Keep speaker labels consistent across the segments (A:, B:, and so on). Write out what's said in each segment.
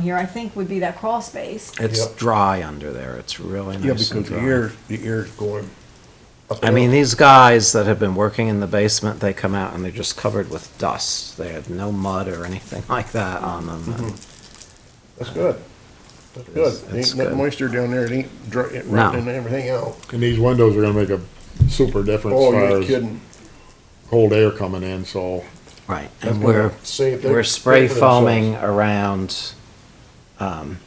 A: here, I think would be that crawl space.
B: It's
C: Yep.
B: dry under there. It's really
C: Yeah,
B: nice and
C: because the
B: dry.
C: air, the air's going up.
B: I
C: and
B: mean,
C: up.
B: these guys that have been working in the basement, they come out and they're just covered with dust. They have no mud or anything like that on them. and-
C: Mm-hmm. That's good. That's
B: It's-
C: good.
B: it's
C: Ain't that
B: good.
C: moisture down there, it ain't dry, it
B: No.
C: rotting everything out.
D: And these windows are gonna make a super difference
C: Oh, you're
D: as far as
C: kidding.
D: cold air coming in, so
B: Right,
C: That's
B: and we're,
C: gonna save their-
B: we're spray
C: pay for themselves.
B: foaming around, um,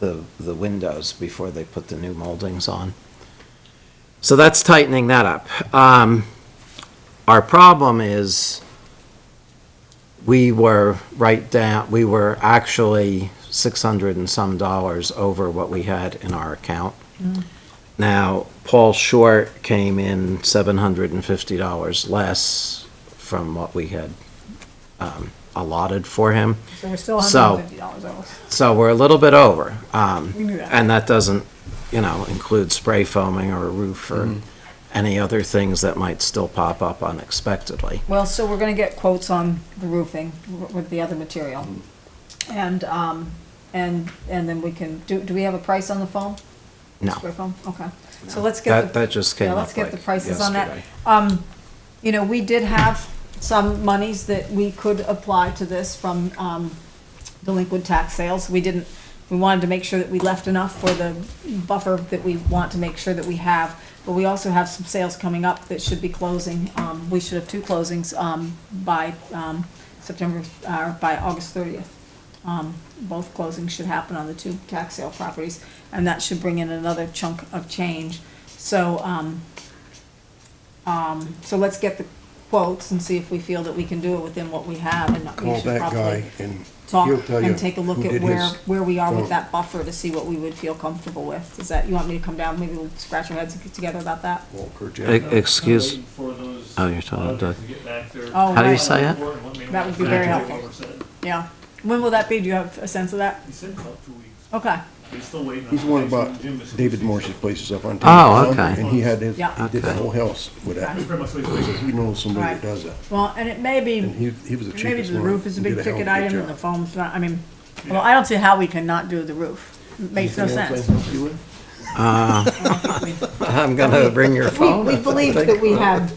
B: the, the windows before they put the new moldings on. So that's tightening that up. Um, our problem is we were right down, we were actually six hundred and some dollars over what we had in our account.
A: Mm.
B: Now, Paul Short came in seven hundred and fifty dollars less from what we had um, allotted for him.
A: So we're still
B: So-
A: hundred and fifty dollars over.
B: So we're a little bit over. Um,
A: We knew that.
B: And that doesn't, you know, include spray foaming or a roof or any other things that might still pop up unexpectedly.
A: Well, so we're gonna get quotes on the roofing w- with the other material. And, um, and, and then we can, do, do we have a price on the foam?
B: No,
A: Square foam, okay. So let's get
B: that,
A: the,
B: that just came
A: yeah,
B: up
A: let's get the
B: like
A: prices on that.
B: yesterday.
A: Um, you know, we did have some monies that we could apply to this from, um, delinquent tax sales. We didn't, we wanted to make sure that we left enough for the buffer that we want to make sure that we have. But we also have some sales coming up that should be closing. Um, we should have two closings, um, by, um, September, uh, by August thirtieth. Um, both closings should happen on the two tax sale properties, and that should bring in another chunk of change. So, um, um, so let's get the quotes and see if we feel that we can do it within what we have and not. we
C: Call
A: should
C: that
A: probably-
C: guy and he'll
A: talk
C: tell you
A: and take a look
C: who
A: at
C: did
A: where,
C: his
A: where we are with
C: phone.
A: that buffer to see what we would feel comfortable with. Is that, you want me to come down, maybe we'll scratch our heads and get together about that?
C: Walker
B: E-
C: Jack.
B: Excuse, Oh,
E: Oh,
B: you're talking about Doug.
A: Oh,
B: How do you
A: right.
B: say it?
A: That would be very helpful. Yeah. When will that be? Do you have a sense of that?
E: He said about two weeks.
A: Okay,
E: He's still waiting. on
C: He's one
E: the next
C: about
E: Jim is-
C: David Morse's places up on.
B: Oh,
C: Tampa Town,
B: okay.
C: And he had his,
A: Yeah.
C: he did the
B: Okay.
C: whole house with that.
E: He's pretty much like-
C: So He knows somebody that
A: Right.
C: does that.
A: well, and it may be,
C: And he, he was the cheapest one.
A: maybe the roof is a
C: He
A: big
C: did hell of
A: ticket
C: a good
A: item and the
C: job.
A: foam's not, I mean, well, I don't see how we can not do the roof. It Makes no
C: Anything else I
A: sense.
C: can help you with?
B: I'm gonna bring your
A: We,
B: phone.
A: we believed that we had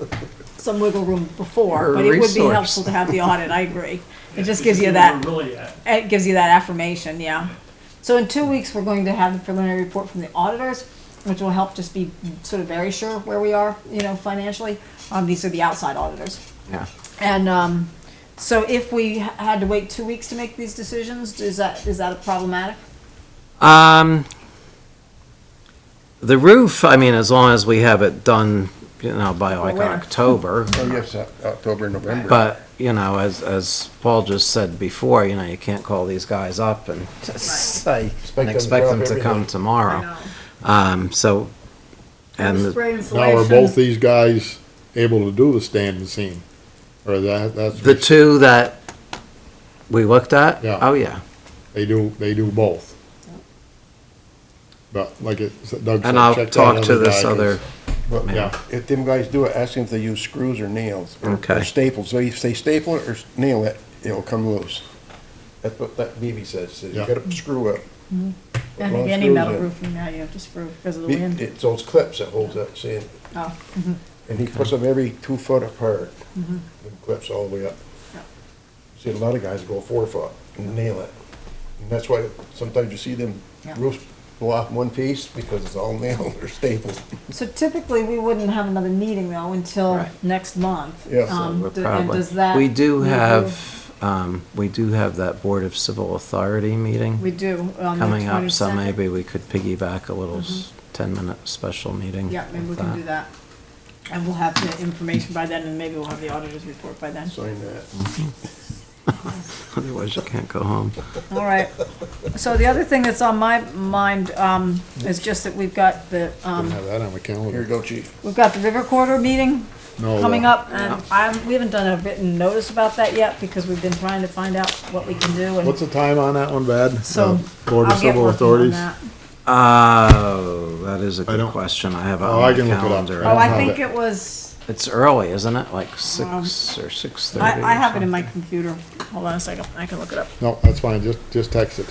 A: some wiggle room before,
B: Or
A: but it would be
B: resource.
A: helpful to have the audit, I agree. It just
E: He's
A: gives you
E: still
A: that.
E: Really at.
A: it gives you that affirmation, yeah. So in two weeks, we're going to have the preliminary report from the auditors, which will help just be sort of very sure where we are, you know, financially. Um, these are the outside auditors.
B: Yeah.
A: And, um, so if we ha- had to wait two weeks to make these decisions, is that, is that problematic?
B: Um, the roof, I mean, as long as we have it done, you know, by like
A: winter.
B: October,
C: Oh, yes, uh, October, November.
B: But, you know, as, as Paul just said before, you know, you can't call these guys up and just say,
C: them
B: and
C: to
B: expect
C: drop
B: them to come
C: everything.
B: tomorrow. Um, so, Uh-huh. and, the-
D: now are both these guys able to do the standing seam? Or that, that's,
B: the two that we looked at?
D: Yeah.
B: Oh, yeah.
D: they do, they do both. But like it, Doug said,
B: And I'll
D: check that
B: talk to
D: guy,
B: this
D: 'cause-
B: other,
C: But
D: Yeah,
C: If them guys do it, ask them if they use screws or nails. or-
B: Okay.
C: Or staples. So if they staple it or s- nail it, it'll come loose. That's what that BB says, says you
D: Yeah.
C: gotta screw
A: I
C: up. Long
A: think Mm-hmm. any
C: screws
A: metal
C: in.
A: roofing now, you have to screw because of the
C: Be-
A: wind.
C: It's those clips that holds that sand,
A: Oh,
C: and he puts them every two foot apart. Them clips all the way up.
A: Mm-hmm. Yeah.
C: See, a lot of guys go four foot and nail it. And that's why sometimes you see them
A: Yeah.
C: roofs blow off in one piece because it's all nailed or stapled.
A: So typically, we wouldn't have another meeting though until
B: Right.
A: next month.
C: Yeah, so
A: Um,
B: we're
A: d- And
B: probably,
A: does that?
B: we do
A: leave you-
B: have, um, we do have that Board of Civil Authority
A: We
B: meeting
A: do. on the
B: coming up, so
A: 22nd.
B: maybe we could piggyback a little s- ten-minute special meeting.
A: Mm-hmm. Yeah, maybe we
B: with
A: can do that. And we'll have the information by then, and maybe we'll have the auditor's report by then.
C: Sign that.
B: Otherwise you can't go home.
A: All right. So the other thing that's on my mind, um, is just that we've got the,
D: didn't
A: um,
D: have that on
C: Here
D: my
C: you
D: calendar.
C: go, chief.
A: we've got the River Corridor meeting
D: No, uh,
A: coming
D: the-
A: up, and I'm, we haven't done a written notice about that yet, because we've been trying to find out what we can do,
D: What's
A: and
D: the time on that one, Bad?
A: so.
D: Uh, Board of
A: I'll get
D: Civil
A: working on
D: Authorities?
A: that.
B: Oh, that is a
D: I
B: good
D: don't-
B: question. I have it
D: Oh,
B: on
D: I
B: my
D: can look it up.
B: calendar.
A: Oh,
D: don't
A: I
D: have
A: think
D: it.
A: it was,
B: It's early, isn't it? Like
A: Um,
B: six or six thirty?
A: I, I have it in my computer. Hold on a second, I can look it up.
D: No, that's fine, just, just text it